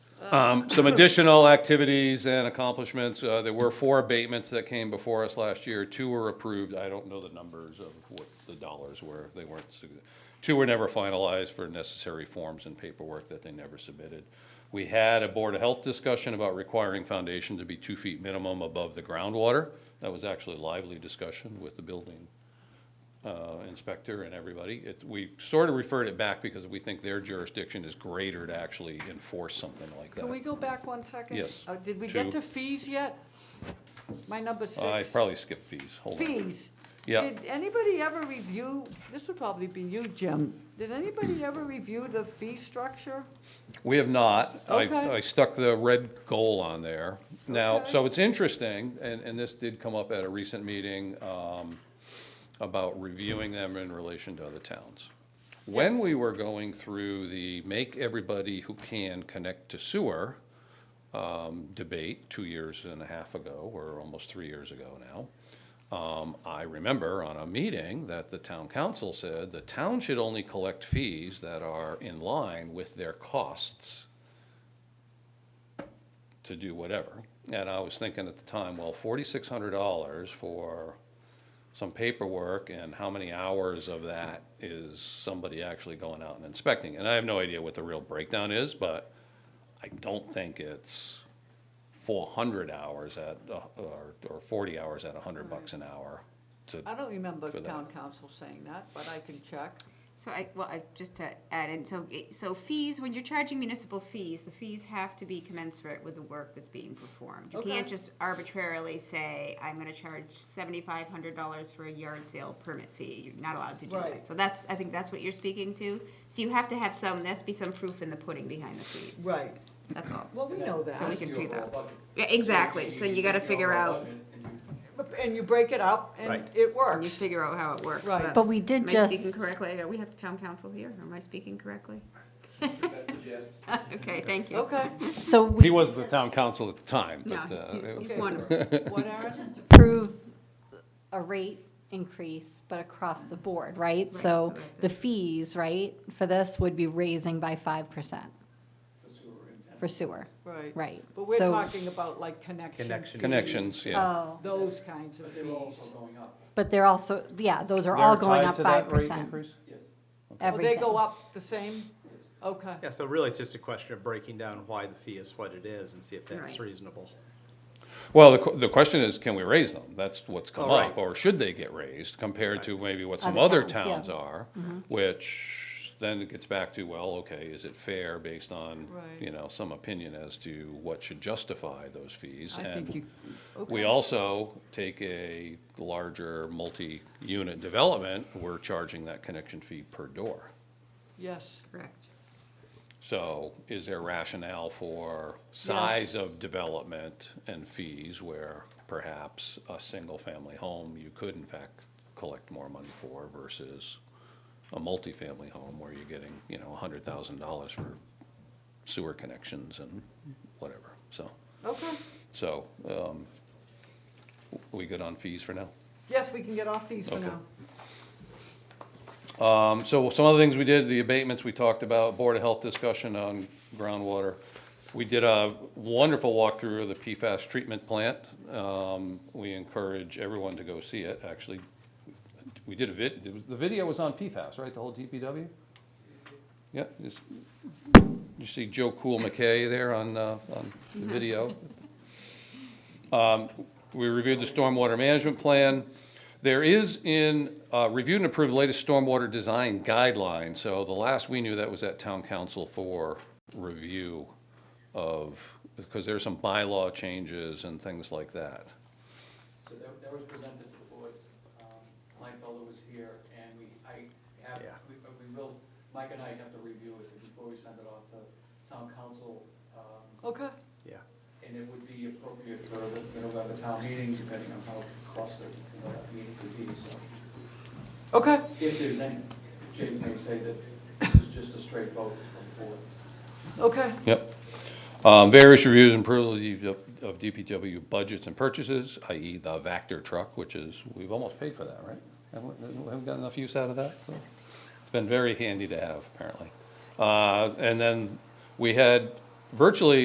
Um, some additional activities and accomplishments, uh, there were four abatements that came before us last year, two were approved, I don't know the numbers of what the dollars were, they weren't, sig- two were never finalized for necessary forms and paperwork that they never submitted. We had a Board of Health discussion about requiring foundation to be two feet minimum above the groundwater, that was actually a lively discussion with the building uh, inspector and everybody. It, we sort of referred it back because we think their jurisdiction is greater to actually enforce something like Can we that. go back one second? Yes. Uh, Did we get Two. to fees yet? My number six. I probably skipped fees, hold on. Fees. Yeah. Did anybody ever review, this would probably be you, Jim. Did anybody ever review the fee structure? We have not. Okay. I, I stuck the red goal on there. Now, Okay. so it's interesting, and, and this did come up at a recent meeting, um, about reviewing them in relation to other towns. When we were going through the make everybody who can connect to sewer, um, debate two years and a half ago, or almost three years ago now, um, I remember on a meeting that the town council said the town should only collect fees that are in line with their costs to do whatever. And I was thinking at the time, well, forty-six hundred dollars for some paperwork and how many hours of that is somebody actually going out and inspecting? And I have no idea what the real breakdown is, but I don't think it's four hundred hours at, uh, or, or forty hours at a hundred bucks an hour to, I don't remember For that. town council saying that, but I can check. So I, well, I, just to add in, so, it- so fees, when you're charging municipal fees, the fees have to be commensurate with the work that's being performed. You Okay. can't just arbitrarily say, I'm gonna charge seventy-five hundred dollars for a yard sale permit fee, you're not allowed to do Right. that. So that's, I think that's what you're speaking to, so you have to have some, there has to be some proof in the pudding behind the fees, Right. that's all. Well, we know So we that. can figure out, yeah, exactly, so you gotta figure out, But- And you break it up and Right. it and you works. figure out how it works. Right. That's- But we did Am I speaking just- correctly, Are we have town council here, am I speaking correctly? That's the gist. Okay, thank you. Okay, So he we wasn't the town council at the time, No, but, uh, he's- it was- he's wonderful. what, Aaron? approve a rate increase, but across the board, right? So so the fees, right, for this would be raising by five percent for sewer, Right. right? But we're So- talking about like connection. Connection. fees, connections, yeah. Oh, Those kinds of They were also fees. going up, but they're also, yeah, those are all going up five percent, yes. Will everything. Oh, they go up the same? Okay. Yeah, so really, it's just a question of breaking down why the fee is what it is and see if that's Right. reasonable. Well, the, que- the question is, can we raise them? That's what's come Oh, right. up, or should they get raised compared to maybe what some Other other towns, yeah. Mm-hmm. towns are? Which then it gets back to, well, okay, is it fair based on, Right. you know, some opinion as to what should justify those fees? I think And you, um, we okay. also take a larger multi-unit development, we're charging that connection fee per door. Yes, Correct. So is there rationale for size of development and fees where perhaps a single-family home you could in fact collect more money for versus a multifamily home where you're getting, you know, hundred thousand dollars for sewer connections and whatever, so. okay. So, um, we good on fees for now? Yes, we can get off these for Okay. now. Um, So some other things we did, the abatements we talked about, Board of Health discussion on groundwater. We did a wonderful walkthrough of the PFAS treatment plant. Um, We encourage everyone to go see it, actually. We did a vid, the video was on PFAS, right, the whole DPW? Yeah, just- you see Joe Cool McKay there on, uh, on the video? We reviewed the stormwater management plan. There is in, uh, reviewed and approved latest stormwater design guidelines. So the last we knew that was at town council for review of, because there's some bylaw changes and things like that. So that, that was presented to the board, um, Kleinfelder was here, and we, I have, Yeah. we, but we will, Mike and I have to review it before we send it off to town council, um, Okay, Yeah. and it would be appropriate for the, the November town meeting, depending on how costly, you know, that meeting could be, so. okay. If there's any, Jake may say that this is just a straight vote from the board. Okay, Yep. Um, Various reviews and approval of DPW budgets and purchases, i.e. the Vector truck, which is, we've almost paid for that, right? Haven't we- haven't got enough use out of that, so it's been very handy to have, apparently. Uh, And then we had virtually